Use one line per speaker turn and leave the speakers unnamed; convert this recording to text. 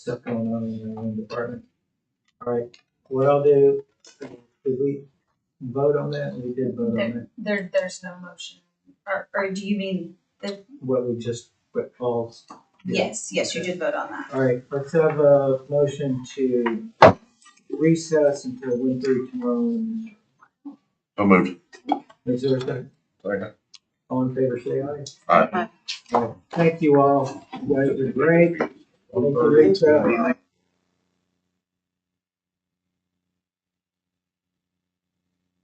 stuff going on in our own department. All right, what I'll do, did we vote on that? We did vote on that,
There, there's no motion, or, or do you mean,
what we just, what Paul's. did.
yes, yes, you did vote on that.
All right, let's have a motion to recess until one thirty tomorrow.
So moved.
Is there a second?
Second.
All in favor, say aye.
All right.
All right, Thank you all. You guys are great. Thank you, Lisa.